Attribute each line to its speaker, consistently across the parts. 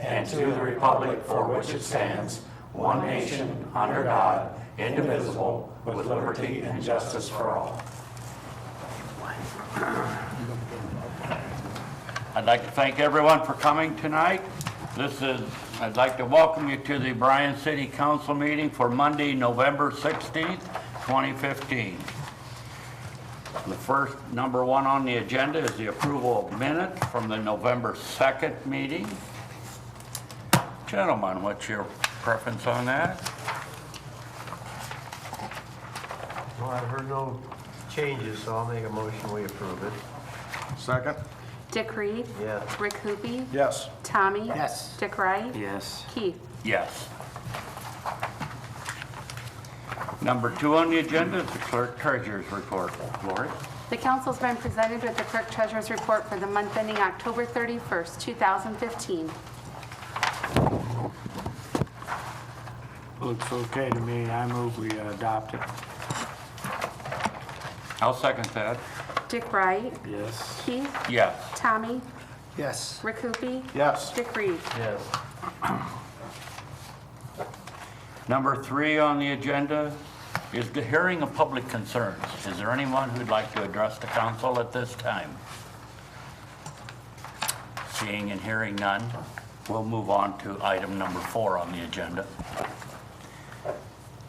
Speaker 1: and to the republic for which it stands, one nation, under God, indivisible, with liberty and justice for all.
Speaker 2: I'd like to thank everyone for coming tonight. This is, I'd like to welcome you to the Bryan City Council meeting for Monday, November 16th, 2015. The first, number one on the agenda is the approval of minutes from the November 2nd meeting. Gentlemen, what's your preference on that?
Speaker 3: Well, I heard no changes, so I'll make a motion, we approve it.
Speaker 4: Second?
Speaker 5: Dick Reed.
Speaker 3: Yeah.
Speaker 5: Rick Hoopie.
Speaker 4: Yes.
Speaker 5: Tommy.
Speaker 4: Yes.
Speaker 5: Dick Wright.
Speaker 1: Yes.
Speaker 5: Keith.
Speaker 2: Yes. Number two on the agenda is the clerk treasurer's report. Lori?
Speaker 5: The council's been presented with the clerk treasurer's report for the month ending October 31st, 2015.
Speaker 6: Looks okay to me. I move we uh, adopt it.
Speaker 2: I'll second that.
Speaker 5: Dick Wright.
Speaker 6: Yes.
Speaker 5: Keith.
Speaker 2: Yes.
Speaker 5: Tommy.
Speaker 4: Yes.
Speaker 5: Rick Hoopie.
Speaker 4: Yes.
Speaker 5: Dick Reed.
Speaker 3: Yes.
Speaker 2: Number three on the agenda is the hearing of public concerns. Is there anyone who'd like to address the council at this time? Seeing and hearing none, we'll move on to item number four on the agenda.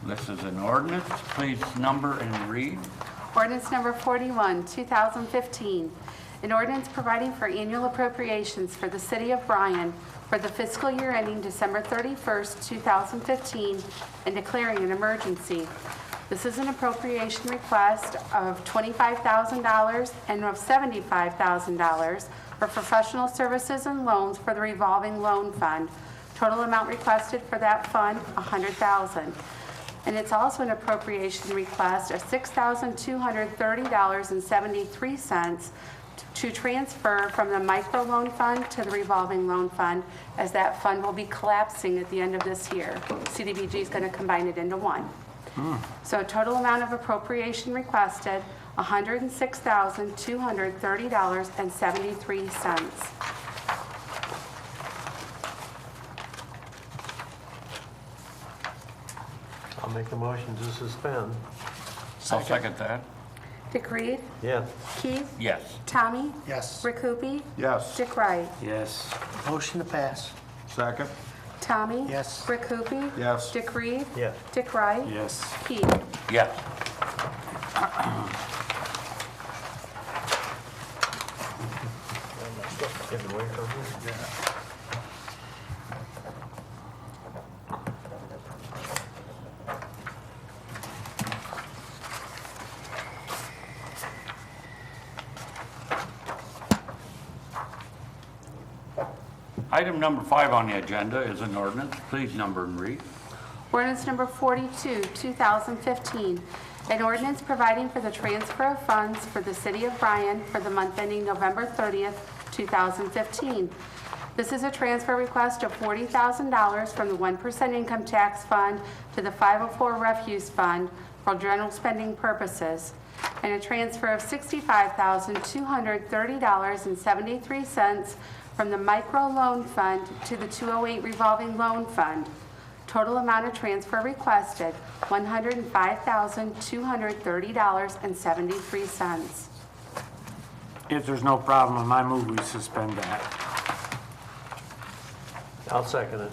Speaker 2: This is an ordinance. Please number and read.
Speaker 5: Ordinance number 41, 2015. An ordinance providing for annual appropriations for the city of Bryan for the fiscal year ending December 31st, 2015, and declaring an emergency. This is an appropriation request of $25,000 and of $75,000 for professional services and loans for the revolving loan fund. Total amount requested for that fund, 100000 and it's also an appropriation request of $6,230.73 to transfer from the microloan fund to the revolving loan fund, as that fund will be collapsing at the end of this year. CDBG is going to combine it into one.
Speaker 4: Hmm.
Speaker 5: So total amount of appropriation requested, $106,230.73.
Speaker 3: I'll make the motion to suspend.
Speaker 2: I'll second that.
Speaker 5: Dick Reed?
Speaker 3: Yes.
Speaker 5: Keith?
Speaker 2: Yes.
Speaker 5: Tommy?
Speaker 4: Yes.
Speaker 5: Rick Hoopie?
Speaker 4: Yes.
Speaker 5: Dick Wright?
Speaker 6: Yes.
Speaker 4: Motion to pass. Second?
Speaker 5: Tommy?
Speaker 4: Yes.
Speaker 5: Rick Hoopie?
Speaker 4: Yes.
Speaker 5: Dick Reed?
Speaker 3: Yes.
Speaker 5: Dick Wright?
Speaker 6: Yes.
Speaker 5: Keith?
Speaker 2: Yes.
Speaker 3: Give it away from me.
Speaker 2: Item number five on the agenda is an ordinance. Please number and read.
Speaker 5: Ordinance number 42, 2015. An ordinance providing for the transfer of funds for the city of Bryan for the month ending November 30th, 2015. This is a transfer request of $40,000 from the 1% income tax fund to the 504 refuse fund for general spending purposes and a transfer of $65,230.73 from the micro loan fund to the 208 revolving loan fund. Total amount of transfer requested, $105,230.73.
Speaker 6: If there's no problem, I move we suspend that.
Speaker 3: I'll second it.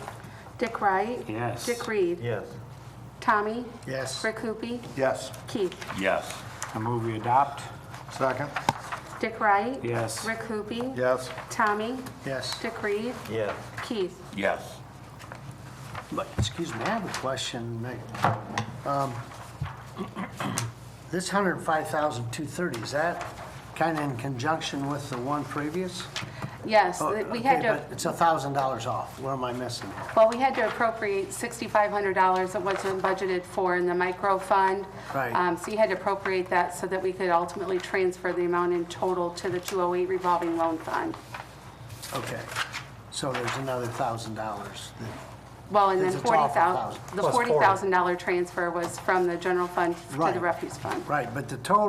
Speaker 5: Dick Wright?
Speaker 6: Yes.
Speaker 5: Dick Reed?
Speaker 3: Yes.
Speaker 5: Tommy?
Speaker 4: Yes.
Speaker 5: Rick Hoopie?
Speaker 4: Yes.
Speaker 5: Keith?
Speaker 2: Yes.
Speaker 6: I move we adopt.
Speaker 4: Second?
Speaker 5: Dick Wright?
Speaker 6: Yes.
Speaker 5: Rick Hoopie?
Speaker 4: Yes.
Speaker 5: Tommy?
Speaker 4: Yes.
Speaker 5: Dick Reed?
Speaker 3: Yes.
Speaker 5: Keith?
Speaker 2: Yes.
Speaker 7: But, Excuse me, I have a question. Nick. Um, This 105,230, is that kind of in conjunction with the one previous?
Speaker 5: Yes,
Speaker 7: Oh,
Speaker 5: we
Speaker 7: okay,
Speaker 5: had to...
Speaker 7: but It's $1,000 off. What am I missing?
Speaker 5: Well, we had to appropriate $6,500 that wasn't budgeted for in the micro fund.
Speaker 7: Right.
Speaker 5: Um, So you had to appropriate that so that we could ultimately transfer the amount in total to the 208 revolving loan fund.
Speaker 7: Okay, so there's another $1,000. that-
Speaker 5: Well, and then
Speaker 7: It's a total of
Speaker 5: 40,000, the
Speaker 3: Plus 40.
Speaker 5: $40,000 transfer was from the general fund to the
Speaker 7: Right.
Speaker 5: refuse fund.
Speaker 7: Right, but the total